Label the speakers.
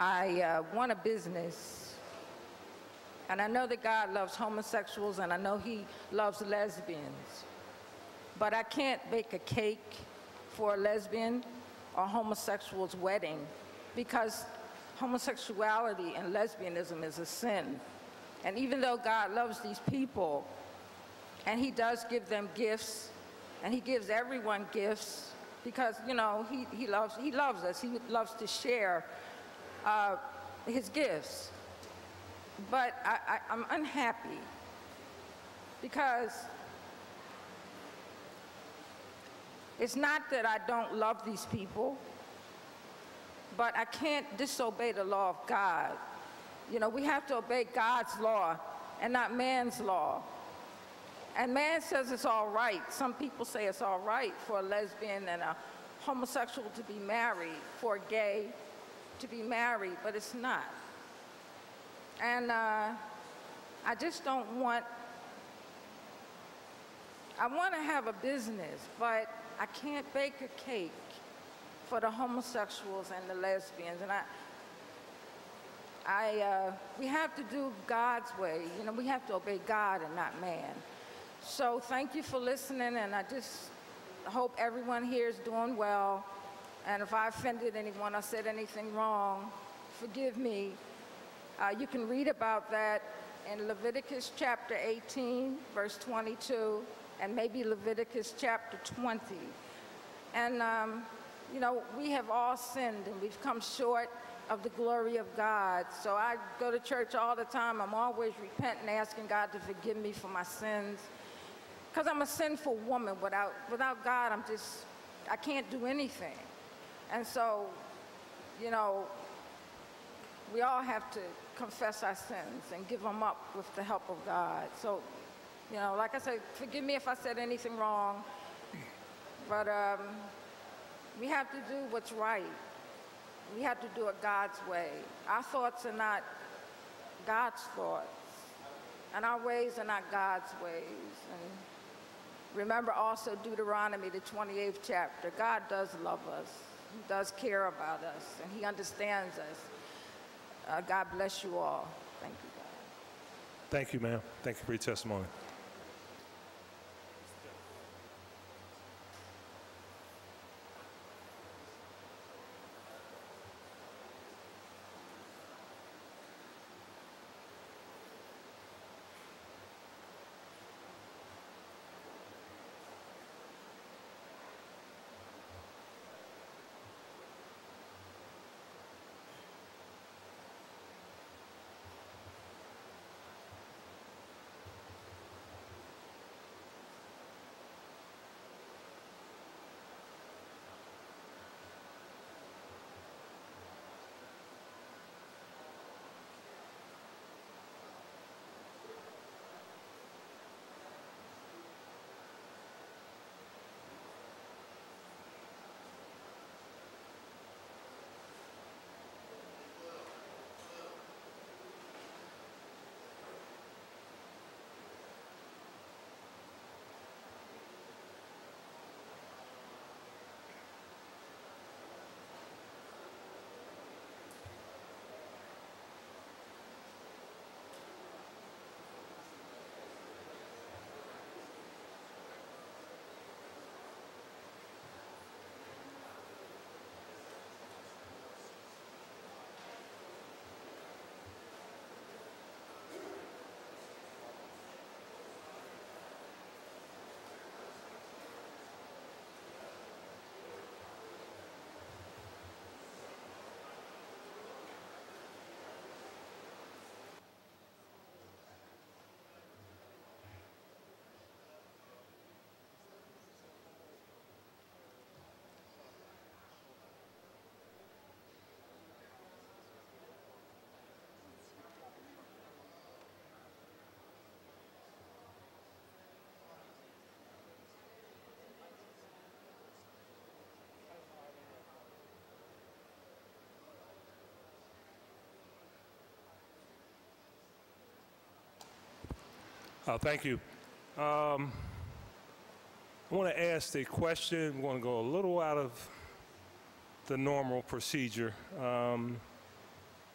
Speaker 1: I uh, want a business. And I know that God loves homosexuals and I know He loves lesbians. But I can't bake a cake for a lesbian or homosexual's wedding because homosexuality and lesbianism is a sin. And even though God loves these people and He does give them gifts and He gives everyone gifts because, you know, He, he, loves, he loves us, He loves to share uh, His gifts. But I, I, I'm unhappy because it's not that I don't love these people, but I can't disobey the law of God. You know, we have to obey God's law and not man's law. And man says it's all right. Some people say it's all right for a lesbian and a homosexual to be married, for a gay to be married, but it's not. And uh, I just don't want, I want to have a business, but I can't bake a cake for the homosexuals and the lesbians. And I, I, uh, we have to do God's way. You know, we have to obey God and not man. So thank you for listening, and I just hope everyone here is doing well. And if I offended anyone or said anything wrong, forgive me. Uh, you can read about that in Leviticus chapter 18, verse 22, and maybe Leviticus chapter 20. And, um, you know, we have all sinned and we've come short of the glory of God. So I go to church all the time. I'm always repenting, asking God to forgive me for my sins. Because I'm a sinful woman. Without, without God, I'm just, I can't do anything. And so, you know, we all have to confess our sins and give them up with the help of God. So, you know, like I said, forgive me if I said anything wrong. But um, we have to do what's right. We have to do it God's way. Our thoughts are not God's thoughts, and our ways are not God's ways. And remember also Deuteronomy, the 28th chapter. God does love us, He does care about us, and He understands us. Uh, God bless you all. Thank you, God.
Speaker 2: Thank you, ma'am. Thank you for your testimony. Uh, thank you. Um, I want to ask a question. We're going to go a little out of the normal procedure. Um,